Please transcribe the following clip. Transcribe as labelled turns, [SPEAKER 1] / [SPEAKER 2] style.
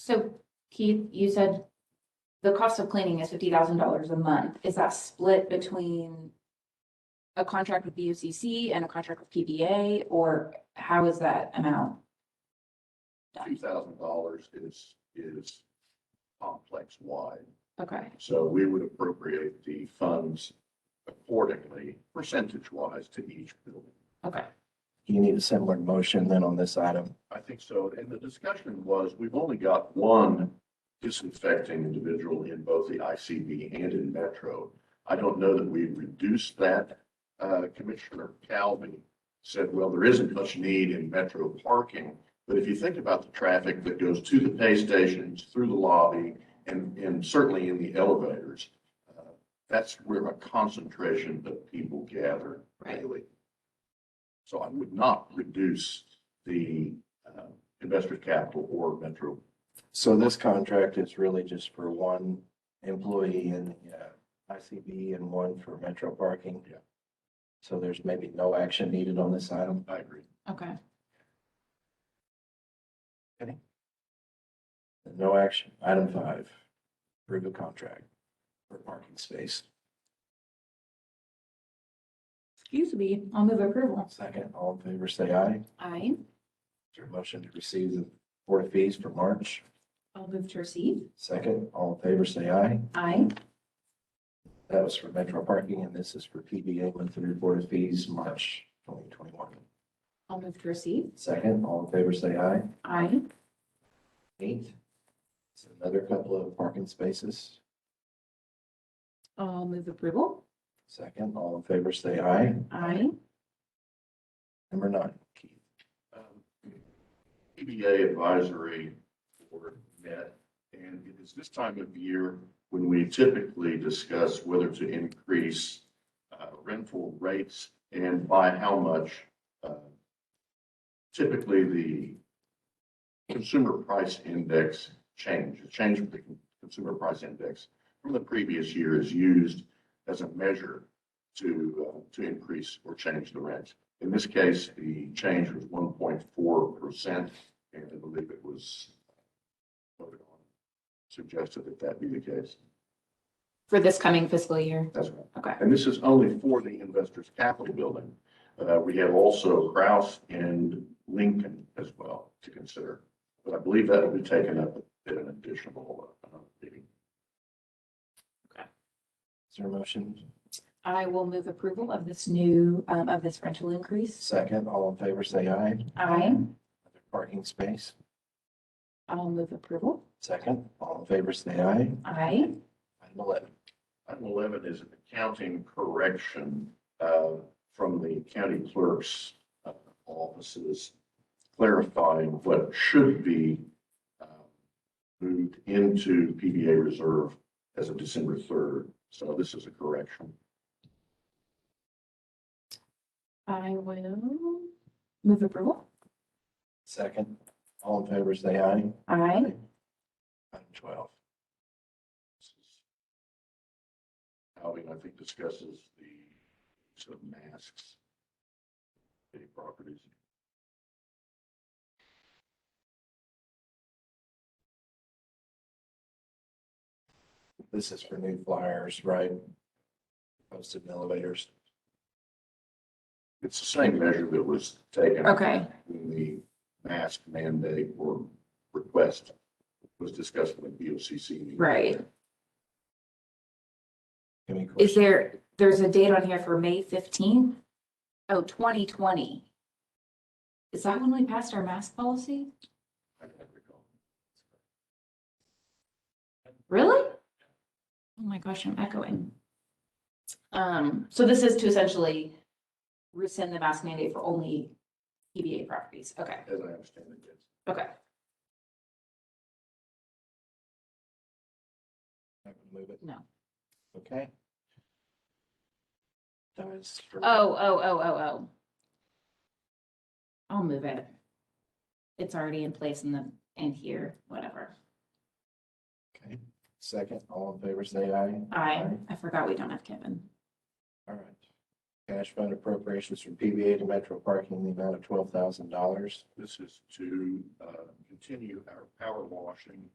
[SPEAKER 1] So Keith, you said the cost of cleaning is fifty thousand dollars a month. Is that split between a contract with BUCC and a contract with PBA, or how is that amount?
[SPEAKER 2] two thousand dollars is, is complex wide.
[SPEAKER 1] Okay,
[SPEAKER 2] So we would appropriate the funds accordingly, percentage wise to each building.
[SPEAKER 1] okay.
[SPEAKER 3] You need a similar motion then on this item.
[SPEAKER 2] I think so. And the discussion was, we've only got one disinfecting individual in both the ICB and in Metro. I don't know that we reduced that. Uh, Commissioner Calvi said, well, there isn't much need in Metro parking. But if you think about the traffic that goes to the pay stations, through the lobby, and, and certainly in the elevators, uh, that's where a concentration of people gather
[SPEAKER 1] Right.
[SPEAKER 2] daily. So I would not reduce the uh, investor capital or metro.
[SPEAKER 3] So this contract is really just for one employee in the uh, ICB and one for Metro Parking.
[SPEAKER 2] Yeah.
[SPEAKER 3] So there's maybe no action needed on this item.
[SPEAKER 2] I agree.
[SPEAKER 1] Okay.
[SPEAKER 3] No action. Item five, approve a contract for parking space.
[SPEAKER 1] Excuse me, I'll move approval.
[SPEAKER 3] Second, all in favor, say aye. Is
[SPEAKER 1] Aye.
[SPEAKER 3] there a motion to receive the Board of Fees for March?
[SPEAKER 1] I'll move to receive.
[SPEAKER 3] Second, all in favor, say aye.
[SPEAKER 1] Aye.
[SPEAKER 3] That was for Metro Parking and this is for PBA one through Board of Fees, March twenty twenty-one.
[SPEAKER 1] I'll move to receive.
[SPEAKER 3] Second, all in favor, say aye.
[SPEAKER 1] Aye.
[SPEAKER 3] Eight. It's another couple of parking spaces.
[SPEAKER 1] I'll move approval.
[SPEAKER 3] Second, all in favor, say aye.
[SPEAKER 1] Aye.
[SPEAKER 3] Number nine, Keith.
[SPEAKER 2] Um, PBA advisory board met, and it is this time of year when we typically discuss whether to increase uh, rental rates and by how much. Uh, Typically, the consumer price index change, the change of the consumer price index from the previous year is used as a measure to, uh, to increase or change the rent. In this case, the change was one point four percent, and I believe it was voted on, suggested that that be the case.
[SPEAKER 1] For this coming fiscal year.
[SPEAKER 2] That's right.
[SPEAKER 1] Okay.
[SPEAKER 2] And this is only for the Investors Capital Building. Uh, we have also Kraus and Lincoln as well to consider. But I believe that will be taken up in an additional, uh, meeting.
[SPEAKER 3] Is there a motion?
[SPEAKER 1] I will move approval of this new, um, of this rental increase.
[SPEAKER 3] Second, all in favor, say aye.
[SPEAKER 1] Aye.
[SPEAKER 3] Another Parking space.
[SPEAKER 1] I'll move approval.
[SPEAKER 3] Second, all in favor, say aye.
[SPEAKER 1] Aye.
[SPEAKER 3] Item eleven.
[SPEAKER 2] Item eleven is an accounting correction uh, from the county clerk's uh, offices clarifying what should be uh, moved into PBA reserve as of December third. So this is a correction.
[SPEAKER 1] I will move approval.
[SPEAKER 3] Second, all in favor, say aye.
[SPEAKER 1] Aye.
[SPEAKER 3] Item twelve.
[SPEAKER 2] Alvin, I think discusses the use of masks. Any properties.
[SPEAKER 3] This is for new flyers, right? Posted in elevators.
[SPEAKER 2] It's the same measure that was taken.
[SPEAKER 1] Okay.
[SPEAKER 2] when the mask mandate or request was discussed with the BOCC.
[SPEAKER 1] Right.
[SPEAKER 3] Any
[SPEAKER 1] Is
[SPEAKER 3] questions?
[SPEAKER 1] there, there's a date on here for May fifteenth? Oh, 2020. Is that when we passed our mask policy?
[SPEAKER 2] I can't recall.
[SPEAKER 1] Really? Oh my gosh, I'm echoing. Um, so this is to essentially rescind the mask mandate for only EBA properties. Okay,
[SPEAKER 2] As I understand it, yes.
[SPEAKER 1] okay.
[SPEAKER 3] Not gonna Move it.
[SPEAKER 1] No.
[SPEAKER 3] Okay. That was for-
[SPEAKER 1] Oh, oh, oh, oh, oh. I'll move it. It's already in place in the, in here, whatever.
[SPEAKER 3] Okay, second, all in favor, say aye.
[SPEAKER 1] I, I forgot we don't have Kevin.
[SPEAKER 3] All right. Cash fund appropriations from PBA to Metro Parking in the amount of twelve thousand dollars.
[SPEAKER 2] This is to uh, continue our power washing